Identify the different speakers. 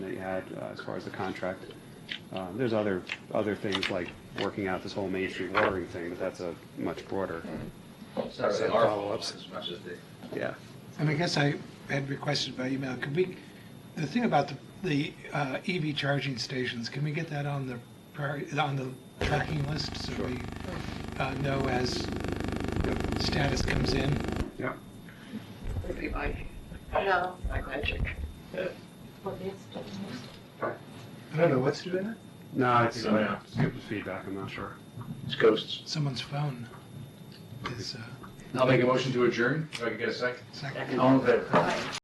Speaker 1: had uh, as far as the contract. Um, There's other, other things like working out this whole Main Street watering thing, but that's a much broader,
Speaker 2: It's not really our fault as much as the,
Speaker 1: yeah.
Speaker 3: And I guess I had requested by email, could we, the thing about the, the uh, EV charging stations, can we get that on the, prior- on the tracking list? So we uh, know as status comes in?
Speaker 1: Yeah.
Speaker 4: would be my, no, my magic.
Speaker 3: I don't know what's doing it.
Speaker 1: No, it's, uh, skip the feedback, I'm not sure.
Speaker 2: it's ghosts.
Speaker 3: Someone's phone is, uh,
Speaker 2: I'll make a motion to adjourn, if I can get a second.
Speaker 3: second.
Speaker 2: All in favor?